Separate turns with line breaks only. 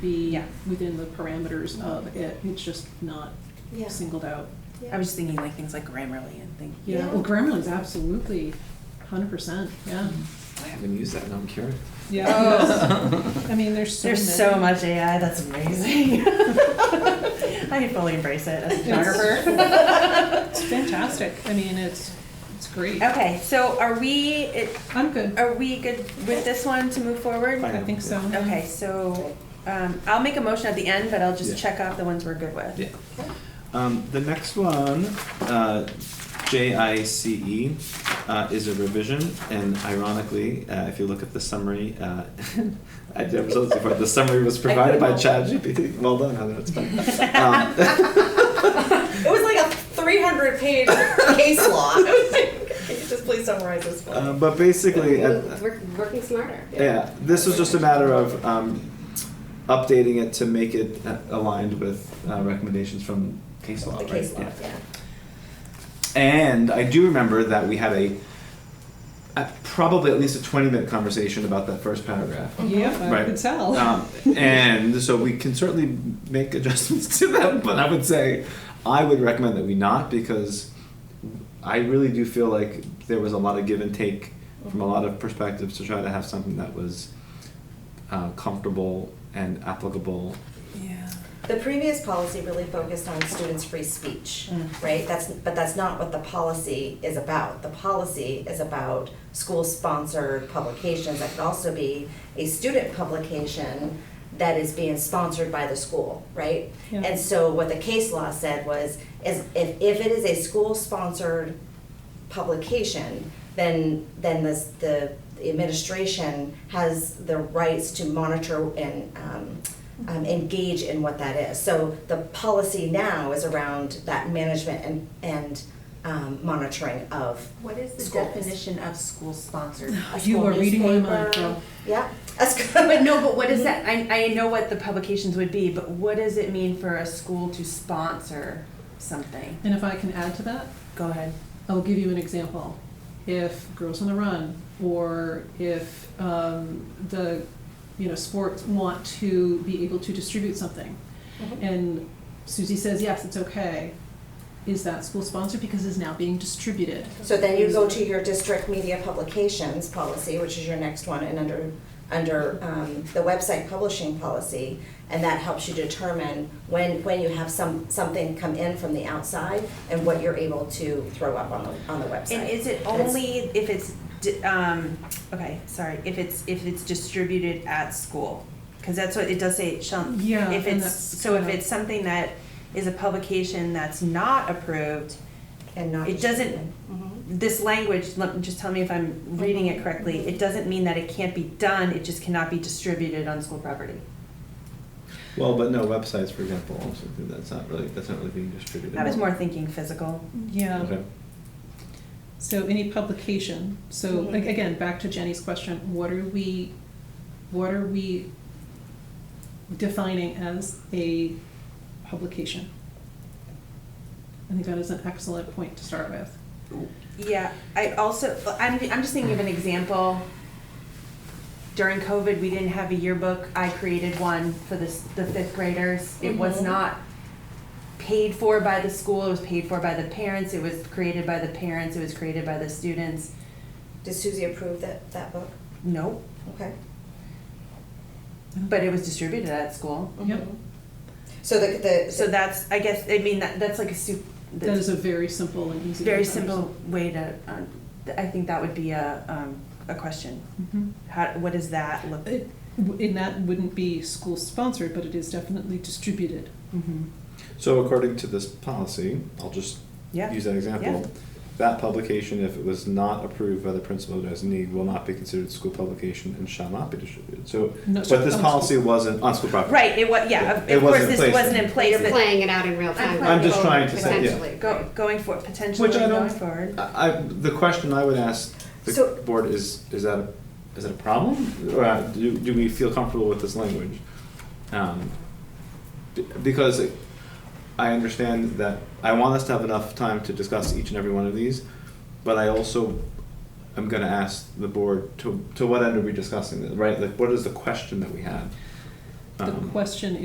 be
Yeah.
within the parameters of it, it's just not
Yeah.
singled out.
Yeah.
I was thinking like things like Grammarly and things.
Yeah,
Yeah.
well, Grammarly's absolutely hundred percent, yeah.
I haven't used that, now I'm curious.
I mean, there's so
There's so
many.
much AI. That's amazing. I can fully embrace it as a photographer.
It's fantastic, I mean, it's, it's great.
Okay, Oh. so are we, it-
I'm good,
are we good with this one to move forward?
Fine.
I think so.
Okay, so, um, I'll make a motion at the end, but I'll
Yeah.
just check off the ones we're good with.
Yeah. Um, the next one, uh, J I C E, uh, is a revision, and ironically, uh, if you look at the summary, uh, I did episodes before, the summary was provided by ChatGPT. Well done, Heather, that's fine. Um,
It was like a 300 page case law. Can you just please summarize this for me?
uh, but basically, at,
Work- working smarter.
uh, Yeah, this was just a matter of um, updating it to make it uh, aligned with uh, recommendations from case law,
The
right?
case law, yeah.
And I do remember that we had a, a probably at least a twenty-minute conversation about that first paragraph.
Yep, I
Right.
could tell.
Um, and so we can certainly make adjustments to that, but I would say I would recommend that we not because I really do feel like there was a lot of give and take from a lot of perspectives to try to have something that was uh, comfortable and applicable.
Yeah.
The previous policy really focused on students' free speech,
Mm.
right? That's, but that's not what the policy is about. The policy is about school-sponsored publications. That could also be a student publication that is being sponsored by the school, right?
Yeah.
And so what the case law said was, is if, if it is a school-sponsored publication, then, then this, the the administration has the rights to monitor and, um, um, engage in what that is. So the policy now is around that management and, and, um, monitoring of.
What is the
schools.
definition of school-sponsored? A
You
school
were reading my mind,
newspaper?
girl.
Yeah. That's
But no, but what is that, I, I know what the publications would be, but what does it mean for a school to sponsor something?
And if I can add to that,
Go ahead.
I'll give you an example. If Girls on the Run or if um, the you know sports want to be able to distribute something,
Mhm.
and Susie says yes, it's okay. Is that school sponsored because it's now being distributed?
So then you go to your district media publications policy, which is your next one, and under, under um, the website publishing policy, and that helps you determine when, when you have some, something come in from the outside and what you're able to throw up on the, on the website.
And is it
And it's-
only if it's, di- um, okay, sorry, if it's, if it's distributed at school? Cause that's what, it does say it shall,
Yeah,
if
and
it's,
that's
so if
kinda-
it's something that is a publication that's not approved,
And not.
it doesn't- Mm-hmm.
Mhm.
this language, let, just tell me if I'm reading it correctly, it doesn't mean that it can't be done, it just cannot be distributed on school property.
Well, but no websites, for example, also that's not really that's not really being distributed.
I was more thinking physical.
Yeah.
Okay.
So any publication, so
Mm-hmm.
Mhm.
like, again, back to Jenny's question, what are we, what are we defining as a publication? I think that is an excellent point to start with.
Yeah, I also, I'm, I'm just thinking of an example. During COVID, we didn't have a yearbook. I created one for the, s- the fifth graders. It was
Mm-hmm.
Mhm.
not paid for by the school, it was paid for by the parents, it was created by the parents, it was created by the students.
Did Susie approve that, that book?
Nope,
Okay.
but it was distributed at school.
Yep.
Mhm. So the, the.
So that's, I guess, I mean, that, that's like a soup,
That is a very simple and easy.
very
to understand.
simple way to, um, th- I think that would be a, um, a question.
Mhm.
How, what does that look?
It- w- And that wouldn't be school sponsored, but it is definitely distributed.
Mhm.
So according to this policy, I'll just
Yeah.
use that example.
Yeah.
That publication, if it was not approved by the principal or designee, will not be considered school publication and shall not be distributed. So,
No, oh,
but
so
this
on
policy
school-
wasn't on school property.
Right, it was, yeah, of
It
of course,
wasn't in
this
place.
wasn't in place,
You're
but
playing it out in real time.
I'm just
trying to say, yeah.
Potentially.
go, going for, potentially
Which I
going
don't-
forward.
I, I- the question I would ask the
So-
board is: Is that a, is it a problem, or uh, do, do we feel comfortable with this language? Um, b- because I understand that I want us to have enough time to discuss each and every one of these, but I also am going to ask the board to to what end are we discussing this, right? Like, what is the question that we have?
The
Um,
question